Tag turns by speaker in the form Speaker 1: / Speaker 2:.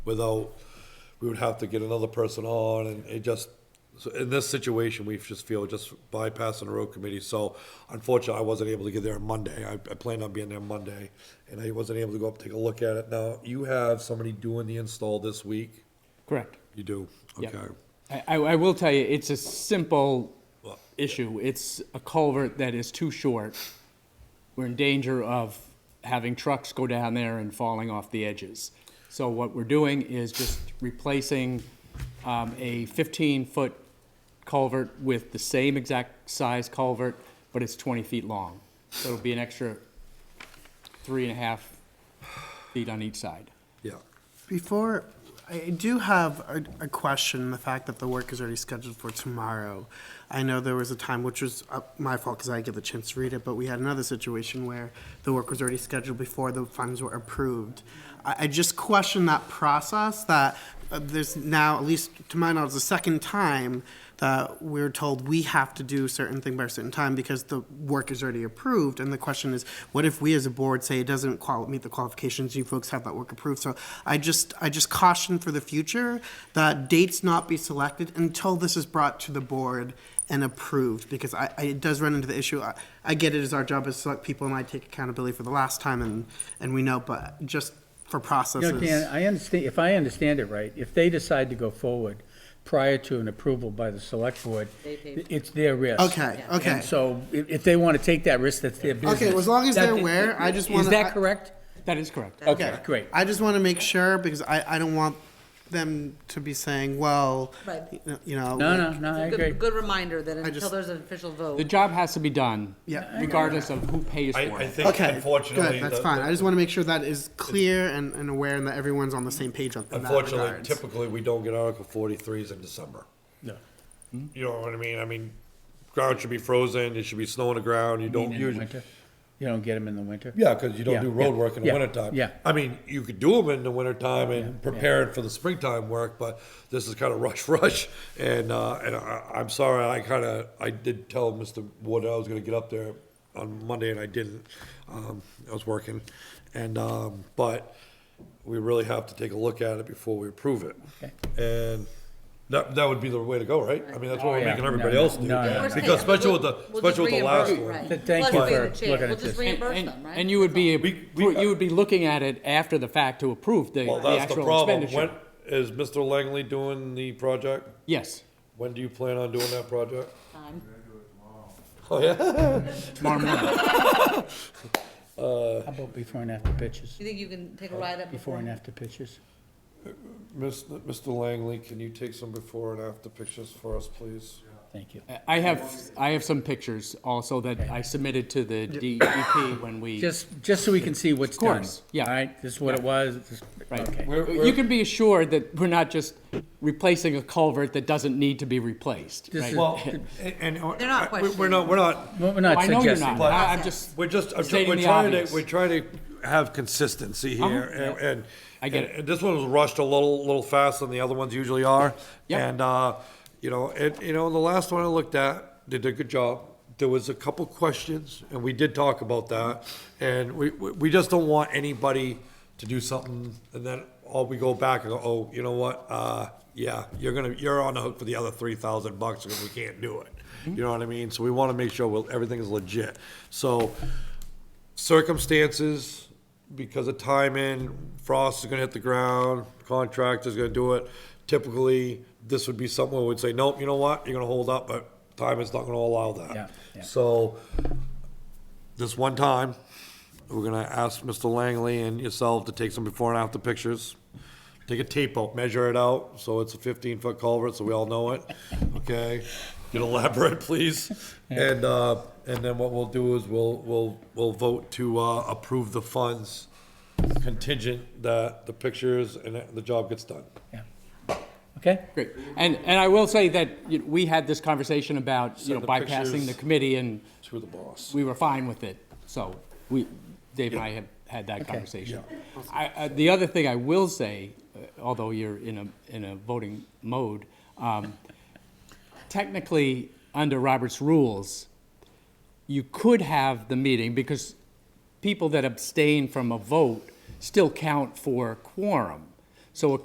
Speaker 1: without, we would have to get another person on, and it just, so in this situation, we just feel just bypassing the road committee, so unfortunately, I wasn't able to get there on Monday, I, I planned on being there Monday, and I wasn't able to go up, and take a look at it. Now, you have somebody doing the install this week?
Speaker 2: Correct.
Speaker 1: You do,
Speaker 2: Yep.
Speaker 1: okay.
Speaker 2: I, I I will tell you, it's a simple
Speaker 1: Well,
Speaker 2: issue. It's a culvert that is too short. We're in danger of having trucks go down there and falling off the edges. So what we're doing is just replacing um, a 15-foot culvert with the same exact size culvert, but it's 20 feet long. So it'll be an extra three and a half feet on each side.
Speaker 1: Yeah,
Speaker 3: Before, I I do have a, a question, the fact that the work is already scheduled for tomorrow. I know there was a time, which was uh, my fault because I didn't get the chance to read it, but we had another situation where the work was already scheduled before the funds were approved. I, I just question that process, that uh, there's now, at least to my knowledge, the second time that we're told we have to do certain thing by a certain time because the work is already approved. And the question is, what if we as a board say it doesn't qual- meet the qualifications, you folks have that work approved? So I just, I just caution for the future that dates not be selected until this is brought to the board and approved, because I, I, it does run into the issue. I, I get it as our job as select people and I take accountability for the last time and, and we know, but just for
Speaker 4: You
Speaker 3: processes.
Speaker 4: know, Dan, I understand, if I understand it right, if they decide to go forward prior to an approval by the select board, it's their risk.
Speaker 3: Okay, okay.
Speaker 4: And so if, if they want to take that risk, that's their business.
Speaker 3: Okay, well, as long as
Speaker 4: That-
Speaker 3: they're aware, I just wanna-
Speaker 4: Is
Speaker 3: I-
Speaker 4: that correct?
Speaker 2: That is correct.
Speaker 4: Okay, great.
Speaker 3: I just want to make sure because I, I don't want them to be saying, well,
Speaker 5: Right.
Speaker 3: you know.
Speaker 4: No, no, no, I
Speaker 5: Good-
Speaker 4: agree.
Speaker 5: Good reminder that until
Speaker 3: just-
Speaker 5: there's an official
Speaker 2: The
Speaker 5: vote,
Speaker 2: job has to be done.
Speaker 3: Yeah.
Speaker 2: Regardless of who pays
Speaker 1: I,
Speaker 2: for
Speaker 1: I
Speaker 2: it.
Speaker 1: think
Speaker 3: Okay.
Speaker 1: unfortunately.
Speaker 3: Good, that's
Speaker 1: the-
Speaker 3: fine. I just want to make sure that is clear and, and aware and that everyone's on the same page on in that
Speaker 1: Unfortunately,
Speaker 3: regards.
Speaker 1: typically, we don't get Article forty-threes in December.
Speaker 4: No.
Speaker 1: You know what I mean? I mean, ground should be frozen, it should be snow on the ground, you don't
Speaker 4: In the
Speaker 1: usually.
Speaker 4: winter? You don't get them in the winter?
Speaker 1: Yeah, because you don't
Speaker 4: Yeah,
Speaker 1: do
Speaker 4: yeah,
Speaker 1: road work in the
Speaker 4: yeah,
Speaker 1: wintertime.
Speaker 4: yeah.
Speaker 1: I mean, you could do them in the wintertime and prepare it for the springtime work, but this is kind of rush, rush. And, uh, and I, I'm sorry, I kind of, I did tell Mr. Wood I was gonna get up there on Monday and I didn't. Um, I was working. And, um, but we really have to take a look at it before we approve it.
Speaker 4: Okay.
Speaker 1: And that, that would be the way to go, right? I mean, that's what
Speaker 4: Oh,
Speaker 1: we're
Speaker 4: yeah.
Speaker 1: making
Speaker 4: No,
Speaker 1: everybody
Speaker 4: no,
Speaker 1: else do.
Speaker 4: no, no, no.
Speaker 1: Because especially with the,
Speaker 5: We'll just
Speaker 1: especially with the last
Speaker 5: reimburse,
Speaker 1: one.
Speaker 5: right.
Speaker 4: Th- thank
Speaker 5: Plus
Speaker 4: you
Speaker 5: we have
Speaker 4: for
Speaker 5: the chance.
Speaker 4: looking
Speaker 5: We'll
Speaker 4: at
Speaker 5: just
Speaker 4: this.
Speaker 2: And,
Speaker 5: reimburse
Speaker 2: and-
Speaker 5: them, right?
Speaker 2: and you would be,
Speaker 1: We- we-
Speaker 2: you would be looking at it after the fact to approve the,
Speaker 1: Well,
Speaker 2: the
Speaker 1: that's the
Speaker 2: actual
Speaker 1: problem. When,
Speaker 2: expenditure.
Speaker 1: is Mr. Langley doing the project?
Speaker 2: Yes,
Speaker 1: When do you plan on doing that project?
Speaker 5: Time.
Speaker 1: Oh, yeah?
Speaker 2: tomorrow morning.
Speaker 4: How about before and after pictures?
Speaker 5: You think you can take a ride up?
Speaker 4: Oh, Before and after pictures?
Speaker 1: Mr. Langley, can you take some before and after pictures for us, please?
Speaker 4: Thank you.
Speaker 2: I have, I have some pictures also that I submitted to the DEP when we,
Speaker 4: Just, just so we can see what's done.
Speaker 2: course, yeah.
Speaker 4: All right, this is what it was, this- okay.
Speaker 2: right.
Speaker 1: We're-
Speaker 2: You
Speaker 1: we're-
Speaker 2: can be assured that we're not just replacing a culvert that doesn't need to be replaced,
Speaker 4: This
Speaker 2: right?
Speaker 4: is-
Speaker 1: Well, and. uh,
Speaker 5: They're not
Speaker 1: I- we- We're
Speaker 5: questioning.
Speaker 1: not, we're not,
Speaker 4: Well, We're not
Speaker 2: I know you're
Speaker 4: suggesting.
Speaker 2: not,
Speaker 4: that.
Speaker 2: I- I'm just,
Speaker 1: we're just, I'm tr-
Speaker 2: Stating
Speaker 1: we're
Speaker 2: the
Speaker 1: trying
Speaker 2: obvious.
Speaker 1: to, we're trying to have consistency here,
Speaker 2: Uh-huh.
Speaker 1: and, and.
Speaker 2: I get
Speaker 1: and-
Speaker 2: it.
Speaker 1: And this one was rushed a little, little faster than the other ones usually are.
Speaker 2: Yep.
Speaker 1: And, uh, you know, it, you know, the last one I looked at, they did a good job. There was a couple questions, and we did talk about that, and we, we, we just don't want anybody to do something, and then, all we go back and go, oh, you know what, uh, yeah, you're gonna, you're on the hook for the other three thousand bucks, because we can't do it.
Speaker 2: Mm-hmm.
Speaker 1: You know what I mean? So we wanna make sure, well, everything is legit. So, circumstances, because of timing, frost is gonna hit the ground, contractor's gonna do it. Typically, this would be something where we'd say, nope, you know what, you're gonna hold up, but time is not gonna allow
Speaker 4: Yeah,
Speaker 1: that.
Speaker 4: yeah.
Speaker 1: So, this one time, we're gonna ask Mr. Langley and yourself to take some before and after pictures. Take a tape out, measure it out, so it's a fifteen-foot culvert, so we all know it, okay? Get elaborate, please. And, uh, and then what we'll do is we'll, we'll, we'll vote to, uh, approve the funds contingent that the pictures and that the job gets done.
Speaker 4: Yeah. Okay?
Speaker 2: Great. And, and I will say that you know, we had this conversation about, you know,
Speaker 1: Send the
Speaker 2: bypassing the
Speaker 1: pictures.
Speaker 2: committee and
Speaker 1: To the boss.
Speaker 2: we were fine with it, so we, Dave and I have had that conversation. I, I- the other thing I will say, uh, although you're in a, in a voting mode, um, technically, under Robert's rules, you could have the meeting, because people that abstain from a vote still count for quorum. So a